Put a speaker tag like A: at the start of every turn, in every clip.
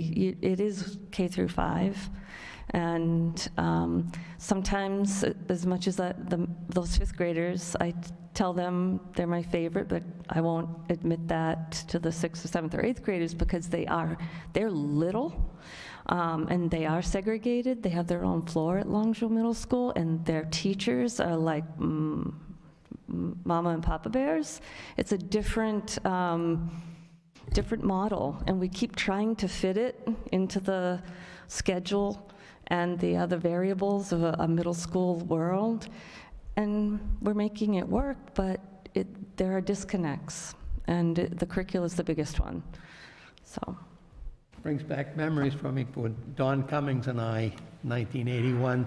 A: You- It is K through five, and um, sometimes, uh, as much as that- the- those fifth graders, I tell them they're my favorite, but I won't admit that to the sixth or seventh or eighth graders because they are, they're little, um, and they are segregated. They have their own floor at Longview Middle School, and their teachers are like mm, m- mama and papa bears. It's a different, um, different model, and we keep trying to fit it into the schedule and the other variables of a, a middle school world, and we're making it work, but it, there are disconnects, and it- the curricula is the biggest one, so.
B: Brings back memories for me when Don Cummings and I, 1981,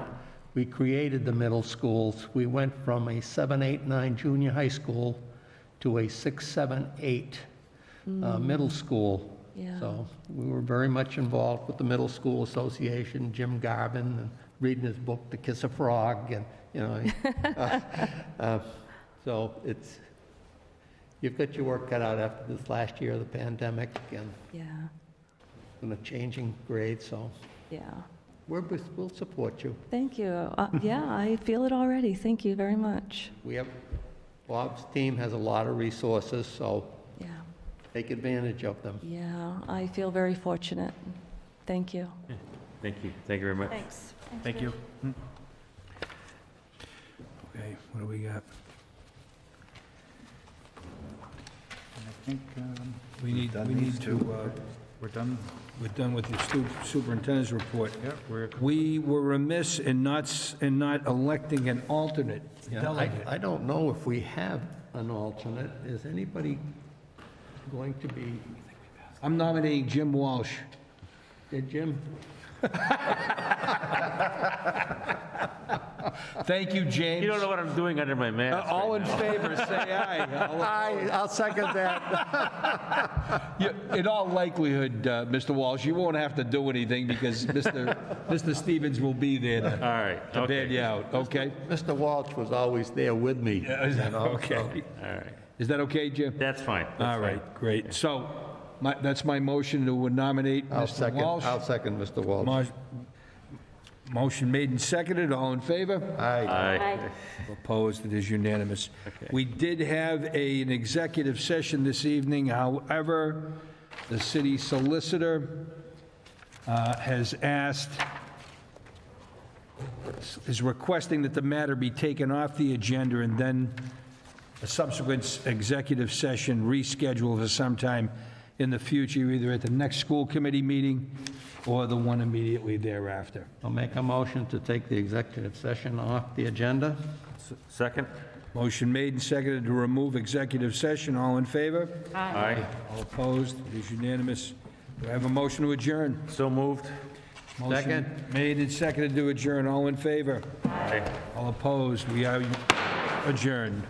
B: we created the middle schools. We went from a 7, 8, 9 junior high school to a 6, 7, 8 uh, middle school.
A: Yeah.
B: So we were very much involved with the Middle School Association, Jim Garvin, and reading his book, The Kiss of Frog, and, you know. uh, uh, So it's, you've got your work cut out after this last year of the pandemic, and
A: Yeah,
B: in a changing grade, so
A: yeah.
B: we're, we'll support you.
A: Thank you. Uh, Yeah, I feel it already. Thank you very much.
B: We have, Bob's team has a lot of resources, so
A: Yeah,
B: take advantage of them.
A: yeah, I feel very fortunate. Thank you.
C: Thank you, thank you very much.
A: Thanks.
C: Thank you.
D: Okay, what do we got?
E: I think um,
D: We need,
E: done
D: we
E: these
D: need to,
E: two.
D: uh,
E: we're done.
D: we're done with the stu- superintendent's report.
E: Yeah, we're,
D: We were remiss in not, s- in not electing an alternate
B: Yeah, I,
D: delegate.
B: I don't know if we have an alternate. Is anybody going to be,
D: I'm nominating Jim Walsh.
B: Yeah, Jim?
D: Thank you, James.
C: You don't know what I'm doing under my
D: Uh,
C: mask
D: All
C: right
D: in
C: now.
D: favor, say aye.
B: I, I'll second that.
D: You- In all likelihood, uh, Mr. Walsh, you won't have to do anything because Mr. Mr. Stevens will be there to
C: All right,
D: to bail you
C: okay,
D: out, okay?
B: Mr. Walsh was always there with me. you know, so-
D: Okay.
C: all right.
D: Is that okay, Jim?
C: That's fine. that's
D: All
C: fine.
D: right, great. So, my, that's my motion to nominate
B: I'll
D: Mr.
B: second,
D: Walsh.
B: I'll second Mr. Walsh.
D: Mo- Motion made and seconded, all in favor?
B: Aye.
C: Aye.
D: Opposed, it is unanimous. We did have a- an executive session this evening, however, the city solicitor uh, has asked, is requesting that the matter be taken off the agenda and then a subsequent s- executive session rescheduled for sometime in the future, either at the next school committee meeting or the one immediately thereafter.
B: I'll make a motion to take the executive session off the agenda.
C: S- Second?
D: Motion made and seconded to remove executive session. All in favor?
C: Aye.
D: All opposed? It is unanimous. Do I have a motion to adjourn?
C: So moved?
D: Motion
B: Second.
D: Made and seconded to adjourn. All in favor?
C: Aye.
D: All opposed? We are adjourned.